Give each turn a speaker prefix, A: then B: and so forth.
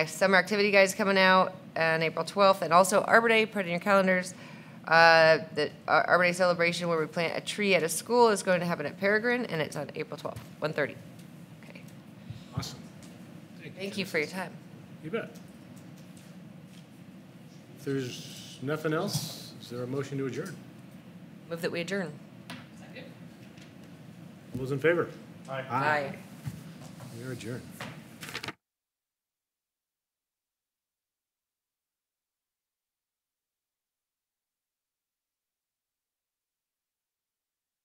A: Summer activity guys coming out on April 12th, and also Arbor Day, put it in your calendars. Uh, The Ar- Arbor Day celebration where we plant a tree at a school is going to happen at Peregrine, and it's on April 12th, 1:30. Okay.
B: Awesome.
A: Thank you for your time.
B: You bet. If there's nothing else, is there a motion to adjourn?
A: Move that we adjourn.
B: All those in favor? Aye. We are adjourned.